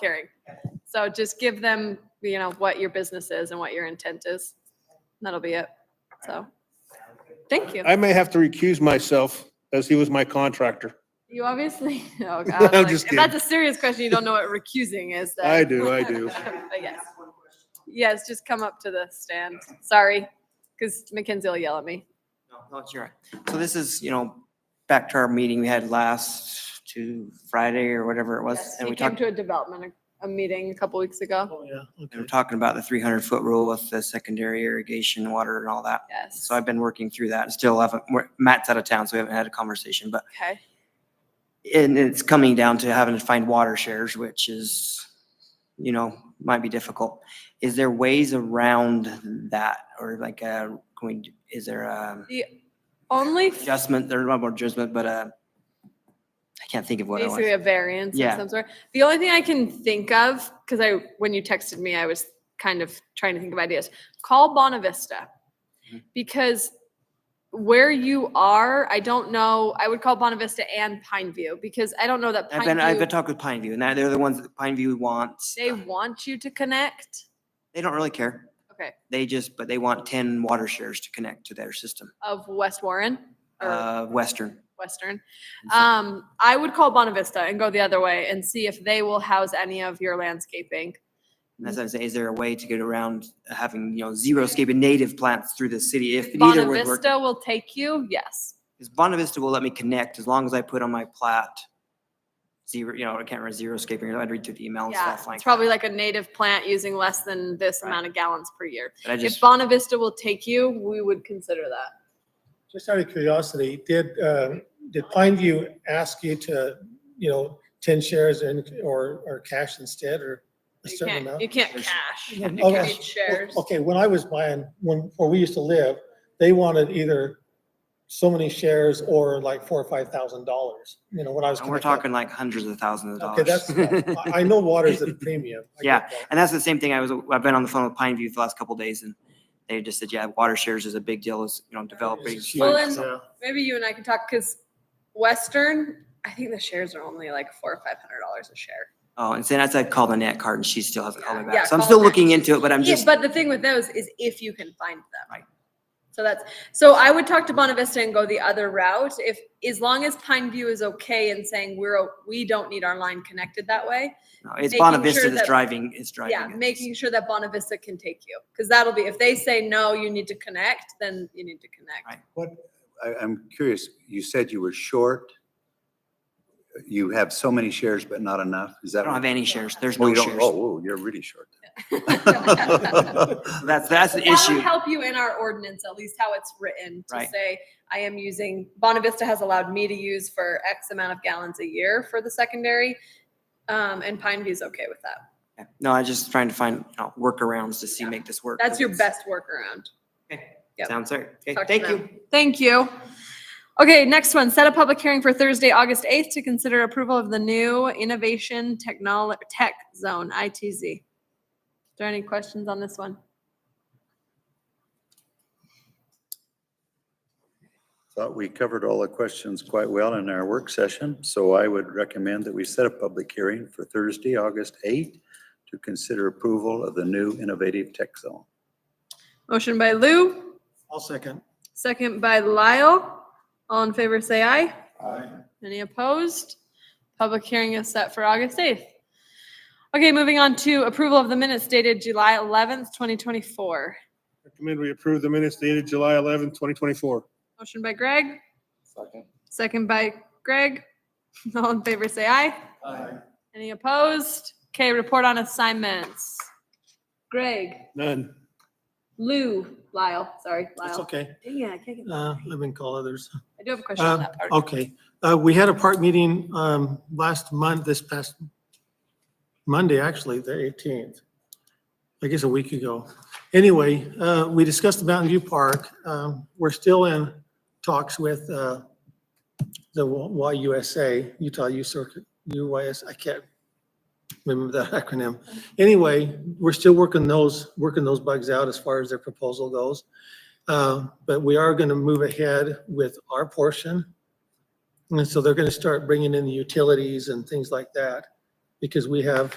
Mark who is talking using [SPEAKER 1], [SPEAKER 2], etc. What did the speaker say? [SPEAKER 1] hearing. So just give them, you know, what your business is and what your intent is. That'll be it. So, thank you.
[SPEAKER 2] I may have to recuse myself as he was my contractor.
[SPEAKER 1] You obviously, oh God.
[SPEAKER 2] I'm
[SPEAKER 1] like,
[SPEAKER 2] just
[SPEAKER 1] If that's a serious question, you don't know what recusing is. then-
[SPEAKER 2] I do, I do.
[SPEAKER 1] But yes. Yes, just come up to the stand. Sorry, because Mackenzie will yell at me.
[SPEAKER 3] No, no, it's your, so this is, you know, back to our meeting we had last to Friday or whatever it was.
[SPEAKER 1] Yes,
[SPEAKER 3] And
[SPEAKER 1] He
[SPEAKER 3] we
[SPEAKER 1] came
[SPEAKER 3] talked,
[SPEAKER 1] to a development, a meeting a couple weeks ago.
[SPEAKER 4] Oh, yeah,
[SPEAKER 3] we were
[SPEAKER 4] okay.
[SPEAKER 3] talking about the three hundred foot rule with the secondary irrigation, water and all that.
[SPEAKER 1] Yes.
[SPEAKER 3] So I've been working through that and still haven't, we're- Matt's out of town, so we haven't had a conversation, but
[SPEAKER 1] Okay.
[SPEAKER 3] and it's coming down to having to find water shares, which is, you know, might be difficult. Is there ways around that or like, uh, can we, is there um, a?
[SPEAKER 1] Only
[SPEAKER 3] adjustment, there's not more adjustment, but uh, I can't think of what I
[SPEAKER 1] basically
[SPEAKER 3] was.
[SPEAKER 1] a variance of
[SPEAKER 3] Yeah.
[SPEAKER 1] some sort. The only thing I can think of, because I, when you texted me, I was kind of trying to think of ideas. Call Bonavista.
[SPEAKER 3] Mhm.
[SPEAKER 1] Because where you are, I don't know, I would call Bonavista and Pine View because I don't know that
[SPEAKER 3] I've been,
[SPEAKER 1] Pine
[SPEAKER 3] I've
[SPEAKER 1] View,
[SPEAKER 3] been talking with Pine View and they're the ones that Pine View wants.
[SPEAKER 1] they want you to connect.
[SPEAKER 3] They don't really care.
[SPEAKER 1] Okay,
[SPEAKER 3] They just, but they want ten water shares to connect to their system,
[SPEAKER 1] of West Warren or
[SPEAKER 3] uh, Western.
[SPEAKER 1] Western.
[SPEAKER 3] And so-
[SPEAKER 1] Um, I would call Bonavista and go the other way and see if they will house any of your landscaping.
[SPEAKER 3] and That's what I'm saying. Is there a way to get around having, you know, zero scape and native plants through the city if neither would work?
[SPEAKER 1] Bonavista will take you, yes.
[SPEAKER 3] Because Bonavista will let me connect as long as I put on my plat. Zero, you know, I can't remember zero scaping. I'd read through the email and
[SPEAKER 1] Yeah,
[SPEAKER 3] stuff like.
[SPEAKER 1] it's probably like a native plant using less than this
[SPEAKER 3] Right.
[SPEAKER 1] amount of gallons per year.
[SPEAKER 3] But I
[SPEAKER 1] If
[SPEAKER 3] just,
[SPEAKER 1] Bonavista will take you, we would consider that.
[SPEAKER 4] Just out of curiosity, did, um, did Pine View ask you to, you know, ten shares and, or, or cash instead, or a
[SPEAKER 1] You
[SPEAKER 4] certain
[SPEAKER 1] can't,
[SPEAKER 4] amount?
[SPEAKER 1] you can't
[SPEAKER 3] There's-
[SPEAKER 1] cash. You
[SPEAKER 4] Oh,
[SPEAKER 1] can't
[SPEAKER 4] yes.
[SPEAKER 1] shares.
[SPEAKER 4] Okay, when I was buying, when, where we used to live, they wanted either so many shares or like four or five thousand dollars, you know, when I was.
[SPEAKER 3] and we're
[SPEAKER 4] connected.
[SPEAKER 3] talking like hundreds of thousands of
[SPEAKER 4] Okay,
[SPEAKER 3] dollars.
[SPEAKER 4] that's, I, I know water's at a premium. I get that.
[SPEAKER 3] And that's the same thing. I was, I've been on the phone with Pine View for the last couple days and they just said, yeah, water shares is a big deal, is, you know, developing.
[SPEAKER 4] It's
[SPEAKER 1] Well,
[SPEAKER 4] huge,
[SPEAKER 1] and-
[SPEAKER 4] yeah.
[SPEAKER 1] Maybe you and I can talk, because Western, I think the shares are only like four or five hundred dollars a share.
[SPEAKER 3] Oh, and so that's, I called Annette Card and she still hasn't called me
[SPEAKER 1] Yeah,
[SPEAKER 3] back. So I'm
[SPEAKER 1] call
[SPEAKER 3] still
[SPEAKER 1] her.
[SPEAKER 3] looking into it, but I'm
[SPEAKER 1] Yeah,
[SPEAKER 3] just,
[SPEAKER 1] but the thing with those is if you can find them.
[SPEAKER 3] Right.
[SPEAKER 1] So that's, so I would talk to Bonavista and go the other route. If, as long as Pine View is okay and saying we're, o- we don't need our line connected that way,
[SPEAKER 3] no, it's
[SPEAKER 1] making sure
[SPEAKER 3] Bonavista
[SPEAKER 1] that-
[SPEAKER 3] that's driving, is driving.
[SPEAKER 1] Yeah,
[SPEAKER 3] it.
[SPEAKER 1] making sure that Bonavista can take you, because that'll be, if they say, no, you need to connect, then you need to connect.
[SPEAKER 3] Right.
[SPEAKER 5] I, I'm curious, you said you were short. You have so many shares, but not enough. Is
[SPEAKER 3] I
[SPEAKER 5] that?
[SPEAKER 3] don't
[SPEAKER 5] what-
[SPEAKER 3] have any shares. There's
[SPEAKER 5] Oh,
[SPEAKER 3] no
[SPEAKER 5] you don't,
[SPEAKER 3] shares.
[SPEAKER 5] oh, whoa, you're really short.
[SPEAKER 1] That
[SPEAKER 3] That's, that's the issue.
[SPEAKER 1] would help you in our ordinance, at least how it's written, to
[SPEAKER 3] Right.
[SPEAKER 1] say, I am using, Bonavista has allowed me to use for X amount of gallons a year for the secondary. Um, and Pine View's okay with that.
[SPEAKER 3] Yeah. No, I just trying to find, you know, workarounds to see,
[SPEAKER 1] Yeah.
[SPEAKER 3] make this work.
[SPEAKER 1] That's your
[SPEAKER 3] It's-
[SPEAKER 1] best workaround. yep.
[SPEAKER 3] Sounds fair. Okay,
[SPEAKER 1] Talk to
[SPEAKER 3] thank
[SPEAKER 1] them.
[SPEAKER 3] you.
[SPEAKER 1] Thank you. Okay, next one, set a public hearing for Thursday, August 8th to consider approval of the new Innovation Technol, Tech Zone, ITZ. Is there any questions on this one?
[SPEAKER 5] Thought we covered all the questions quite well in our work session, so I would recommend that we set a public hearing for Thursday, August 8th to consider approval of the new innovative tech zone.
[SPEAKER 1] Motion by Lou,
[SPEAKER 4] I'll second.
[SPEAKER 1] second by Lyle. All in favor, say aye. Any opposed? Public hearing is set for August 8th. Okay, moving on to approval of the minutes dated July 11th, 2024.
[SPEAKER 2] Recommend we approve the minutes dated July 11, 2024.
[SPEAKER 1] Motion by Greg. Second. Second by Greg. All in favor, say aye.
[SPEAKER 4] Aye.
[SPEAKER 1] Any opposed? Okay, report on assignments. Greg,
[SPEAKER 2] None.
[SPEAKER 1] Lou, Lyle, sorry,
[SPEAKER 4] That's
[SPEAKER 1] Lyle.
[SPEAKER 4] okay.
[SPEAKER 1] Yeah, I can't get, Um,
[SPEAKER 4] Uh, let me call others.
[SPEAKER 1] I do have a question on
[SPEAKER 4] Uh,
[SPEAKER 1] that part.
[SPEAKER 4] Okay, Uh, we had a park meeting um, last month, this past Monday, actually, the 18th. I guess a week ago. Anyway, uh, we discussed the Mountain View Park. Um, We're still in talks with uh, the Y- YUSA, Utah U Circuit, UYS, I can't remember that acronym. Anyway, we're still working those, working those bugs out as far as their proposal goes. Uh, But we are going to move ahead with our portion. And so they're going to start bringing in the utilities and things like that because we have